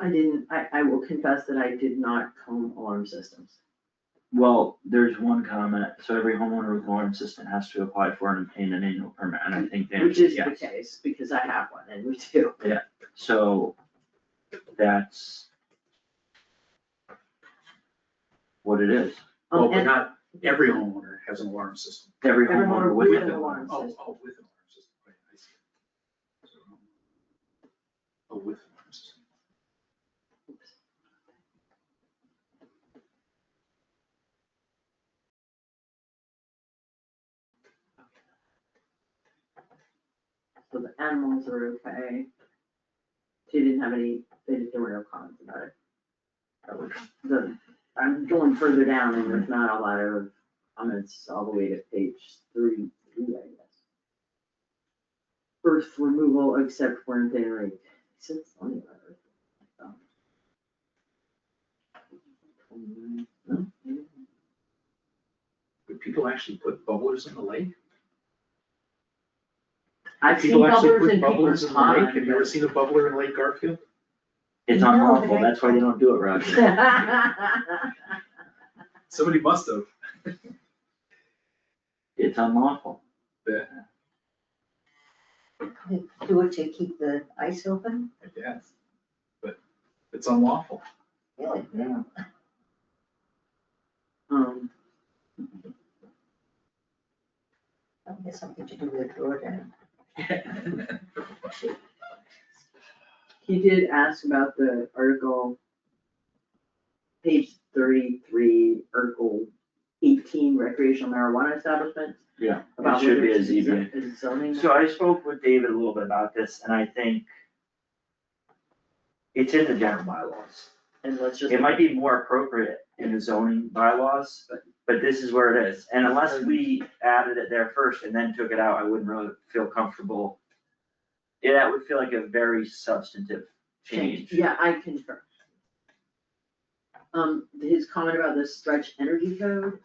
I didn't, I, I will confess that I did not comb alarm systems. Well, there's one comment, so every homeowner with alarm system has to apply for and obtain an annual permit, and I think the Which answer is is yes. the case, because I have one and we do. So that's what it is. Um, Well, but and- not every homeowner has an alarm system. Every Every homeowner homeowner would with have an it. alarm. Oh, System. oh, with an alarm system, right, I see. Oh, with an alarm system. So the animals are okay. She didn't have any, they didn't, there were no comments about it. That was the, I'm going further down and there's not a lot of comments all the way to page three, three, I guess. Earth removal except for in theory, since only about earth. um, no, maybe. Would people actually put bubblers in the lake? I've seen People actually bubblers put in people's bubblers in the lake, have you ever ponds. seen a bubbler in Lake Garfield? It's No, unlawful, they- that's why they don't do it, Roger. Somebody must have. It's unlawful. Do it to keep the ice open, I guess, but it's unlawful. Oh, really? Yeah. Um, That has something to do with Jordan. He did ask about the article. Page thirty-three, article eighteen, recreational marijuana establishments. Yeah, it About should whether be a it's ZBA. is zoning. So I spoke with David a little bit about this, and I think it's in the general bylaws. And let's just. It might be more appropriate in the zoning bylaws, but, but this is where it is. And unless we added it there first and then took it out, I wouldn't really feel comfortable. Yeah, that would feel like a very substantive change. Yeah, I concur. Um, his comment about the stretch energy code.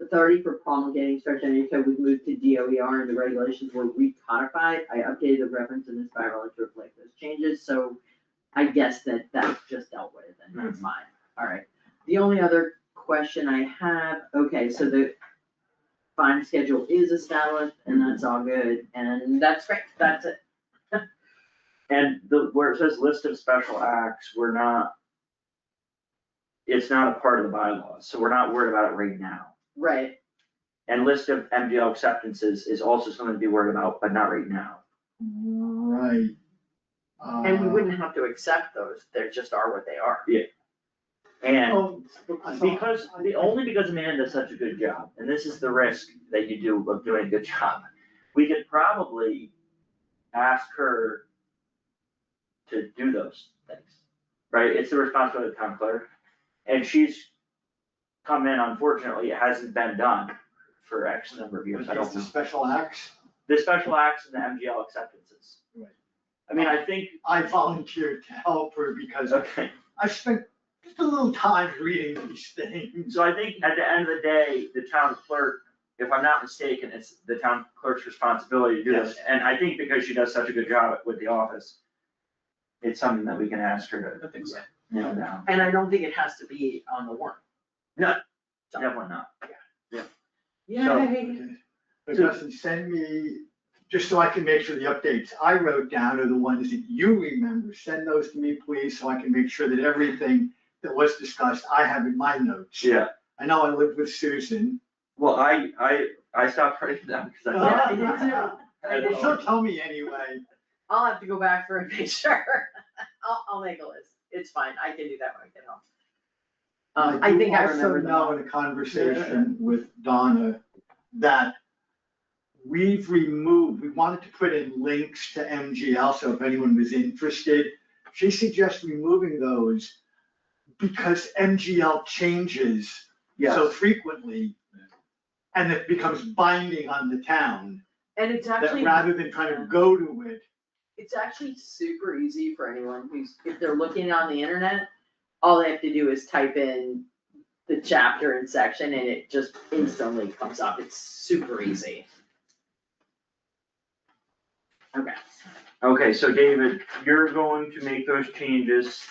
Authority for promulgating stretch energy code was moved to DOER and the regulations were recodified. I updated the reference in this bylaw to reflect those changes, so I guess that that's just dealt with and that's fine, alright. The only other question I have, okay, so the fine schedule is established and that's all good, and that's great, that's it. And the, where it says list of special acts, we're not. It's not a part of the bylaws, so we're not worried about it right now. Right, And list of MGL acceptances is also something to be worried about, but not right now. Right. And Uh, we wouldn't have to accept those, they just are what they are. And I saw- Because, the, only because Amanda does such a good job, and this is the risk that you do of doing a good job, we could probably ask her to do those things, right? It's the responsibility of the town clerk, and she's come in, unfortunately, it hasn't been done for X number of years, I don't know. special acts, The special acts and the MGL acceptances. Right. I mean, I think, I volunteered to help her because okay. I spent just a little time reading these things. So I think at the end of the day, the town clerk, if I'm not mistaken, it's the town clerk's responsibility to do this. And I think because she does such a good job with the office, it's something that we can ask her I think so. to nail down. And I don't think it has to be on the warrant. Definitely not. Yay. Okay. But Dustin, send me, just so I can make sure the updates I wrote down are the ones that you remember. Send those to me, please, so I can make sure that everything that was discussed, I have in my notes. Yeah, I know I lived with Susan. well, I, I, I stopped writing them because I Yeah, thought. I did too. I did She'll too. tell me anyway. I'll have to go back for a picture. I'll, I'll make a list. It's fine. I can do that when I get home. Um, I do think I remember Also now. know in a conversation with Donna that we've removed, we wanted to put in links to MGL, so if anyone was interested. She suggests removing those because MGL changes so Yes. frequently. And it becomes binding on the town, And it's that actually, rather than trying to go to it, it's actually super easy for anyone who's, if they're looking on the internet, all they have to do is type in the chapter and section and it just instantly comes up. It's super easy. Okay. Okay, so David, you're going to make those changes